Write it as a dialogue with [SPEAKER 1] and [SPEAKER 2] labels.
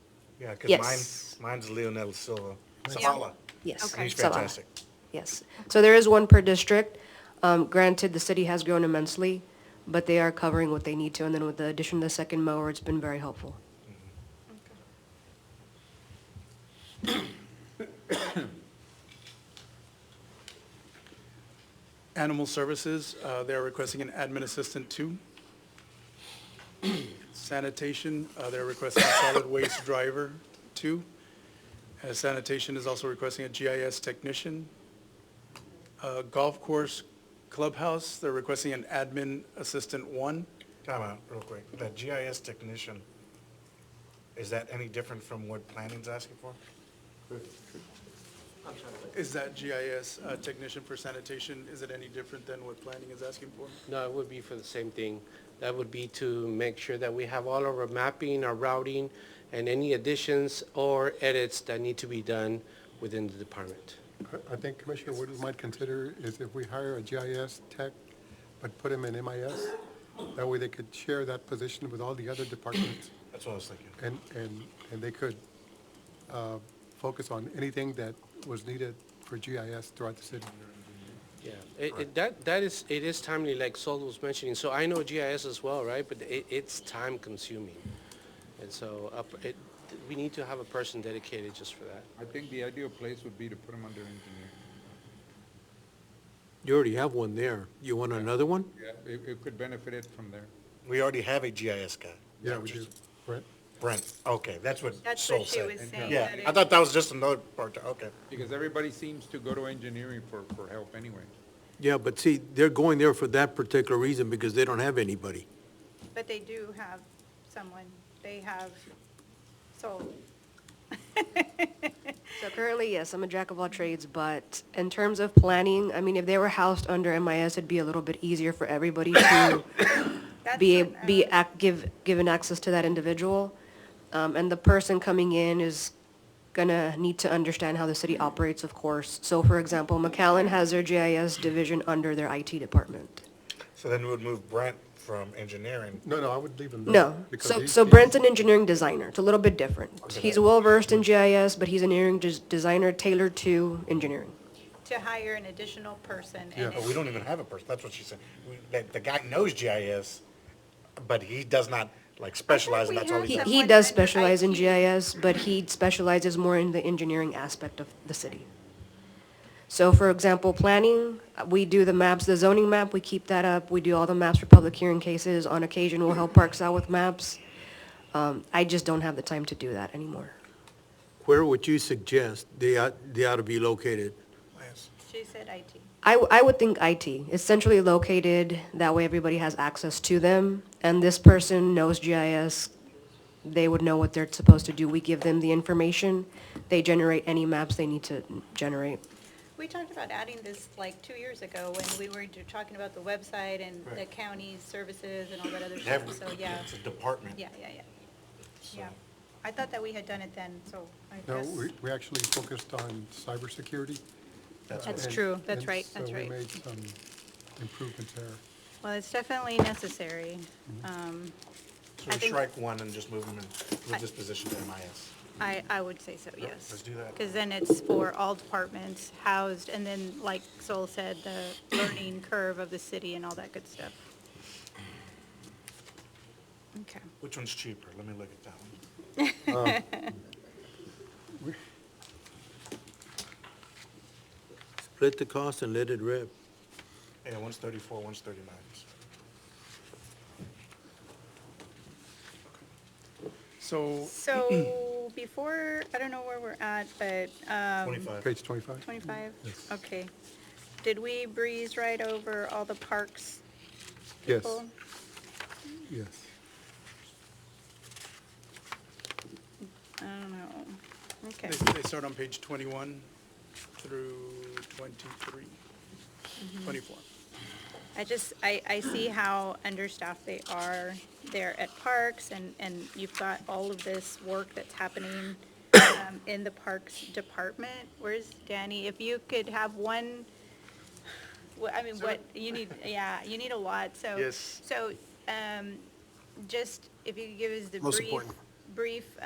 [SPEAKER 1] Yeah,
[SPEAKER 2] Yes.
[SPEAKER 1] because mine, mine's Leonel Silva.
[SPEAKER 2] Yeah.
[SPEAKER 1] Zavala.
[SPEAKER 2] Yes.
[SPEAKER 1] He's
[SPEAKER 2] Zavala.
[SPEAKER 1] fantastic.
[SPEAKER 2] Yes. So there is one per district. Um, Granted, the city has grown immensely, but they are covering what they need to. And then with the addition of the second mower, it's been very helpful.
[SPEAKER 3] Animal Services, uh, they're requesting an admin assistant two. Sanitation, uh, they're requesting a solid waste driver two. Uh, Sanitation is also requesting a GIS technician. Uh, Golf course clubhouse, they're requesting an admin assistant one.
[SPEAKER 1] Time out, real quick. That GIS technician, is that any different from what planning's asking for?
[SPEAKER 3] Is that GIS uh, technician for sanitation, is it any different than what planning is asking for?
[SPEAKER 4] No, it would be for the same thing. That would be to make sure that we have all of our mapping, our routing, and any additions or edits that need to be done within the department.
[SPEAKER 5] I- I think Commissioner Wood might consider is if we hire a GIS tech, but put him in MIS, that way they could share that position with all the other departments,
[SPEAKER 1] That's what I was thinking.
[SPEAKER 5] and, and, and they could uh, focus on anything that was needed for GIS throughout the city.
[SPEAKER 4] Yeah, it, it, that, that is, it is timely, like Sol was mentioning. So I know GIS as well, right? But it, it's time consuming. And so up, it, we need to have a person dedicated just for that.
[SPEAKER 6] I think the ideal place would be to put them under engineer.
[SPEAKER 7] You already have one there. You want another one?
[SPEAKER 6] Yeah. It, it could benefit it from there.
[SPEAKER 1] We already have a GIS guy.
[SPEAKER 5] Yeah, we do. Brent?
[SPEAKER 1] Brent, okay, that's what
[SPEAKER 8] That's
[SPEAKER 1] Sol
[SPEAKER 8] what she
[SPEAKER 1] said.
[SPEAKER 8] was saying,
[SPEAKER 1] Yeah,
[SPEAKER 8] that
[SPEAKER 1] I
[SPEAKER 8] it-
[SPEAKER 1] thought that was just another part, okay.
[SPEAKER 6] Because everybody seems to go to engineering for, for help anyway.
[SPEAKER 7] Yeah, but see, they're going there for that particular reason because they don't have anybody.
[SPEAKER 8] But they do have someone, they have, so,
[SPEAKER 2] So currently, yes, I'm a jack of all trades, but in terms of planning, I mean, if they were housed under MIS, it'd be a little bit easier for everybody to
[SPEAKER 8] that's.
[SPEAKER 2] be,
[SPEAKER 8] what, uh,
[SPEAKER 2] be, ac- give, given access to that individual. Um, and the person coming in is gonna need to understand how the city operates, of course. So for example, McAllen has their GIS division under their IT department.
[SPEAKER 1] So then we would move Brent from engineering.
[SPEAKER 5] No, no, I would leave him there.
[SPEAKER 2] No,
[SPEAKER 5] Oh, because
[SPEAKER 2] so,
[SPEAKER 5] he-
[SPEAKER 2] so Brent's an engineering designer, it's a little bit different. He's well-versed in GIS, but he's an engineering des- designer tailored to engineering.
[SPEAKER 8] To hire an additional person. and
[SPEAKER 5] Yeah,
[SPEAKER 8] it's-
[SPEAKER 1] But we don't even have a person, that's what she said. We- That, the guy knows GIS, but he does not, like, specialize, and
[SPEAKER 8] we
[SPEAKER 1] that's all he
[SPEAKER 2] He,
[SPEAKER 8] have
[SPEAKER 1] does.
[SPEAKER 2] he
[SPEAKER 8] Someone
[SPEAKER 2] does
[SPEAKER 8] under
[SPEAKER 2] specialize in
[SPEAKER 8] IT.
[SPEAKER 2] GIS, but he specializes more in the engineering aspect of the city. So for example, planning, uh, we do the maps, the zoning map, we keep that up. We do all the maps for public hearing cases. On occasion, we'll help Parks out with maps. Um, I just don't have the time to do that anymore.
[SPEAKER 7] Where would you suggest they ought, they ought to be located?
[SPEAKER 8] She said IT.
[SPEAKER 2] I, w- I would think IT, It's centrally located, that way everybody has access to them, and this person knows GIS, they would know what they're supposed to do, we give them the information, they generate any maps they need to generate.
[SPEAKER 8] We talked about adding this like two years ago when we were ju- talking about the website and the county services and all that other stuff, so yeah,
[SPEAKER 1] It's a department.
[SPEAKER 8] yeah, yeah, yeah. Yeah, I thought that we had done it then, so I
[SPEAKER 5] No,
[SPEAKER 8] guess.
[SPEAKER 5] we, we actually focused on cybersecurity.
[SPEAKER 8] That's
[SPEAKER 5] and-
[SPEAKER 8] true, that's
[SPEAKER 5] and
[SPEAKER 8] right, that's right.
[SPEAKER 5] So we made some improvements there.
[SPEAKER 8] Well, it's definitely necessary. Um,
[SPEAKER 1] So
[SPEAKER 8] I
[SPEAKER 1] we
[SPEAKER 8] think-
[SPEAKER 1] strike one and just move him and move this position to MIS.
[SPEAKER 8] I, I would say so, yes.
[SPEAKER 1] let's do that.
[SPEAKER 8] Because then it's for all departments housed, and then, like Sol said, the learning curve of the city and all that good stuff. Okay.
[SPEAKER 1] Which one's cheaper? Let me look at that one.
[SPEAKER 7] Uh, Split the cost and let it rip.
[SPEAKER 1] Yeah, one's thirty-four, one's thirty-nine.
[SPEAKER 3] So
[SPEAKER 8] So before, I don't know where we're at, but um,
[SPEAKER 1] Twenty-five.
[SPEAKER 5] Page 25?
[SPEAKER 8] 25? Okay. Did we breeze right over all the parks
[SPEAKER 5] Yes,
[SPEAKER 8] people?
[SPEAKER 5] yes.
[SPEAKER 8] I don't know. Okay.
[SPEAKER 3] They, they start on page 21 through 23, 24.
[SPEAKER 8] I just, I, I see how understaffed they are there at parks, and, and you've got all of this work that's happening um, in the parks department. Where's Danny? If you could have one, wha- I mean, what, you need, yeah, you need a lot, so.
[SPEAKER 3] Yes.
[SPEAKER 8] So, um, just, if you could give us the
[SPEAKER 7] Most
[SPEAKER 8] brief,
[SPEAKER 7] important.
[SPEAKER 8] brief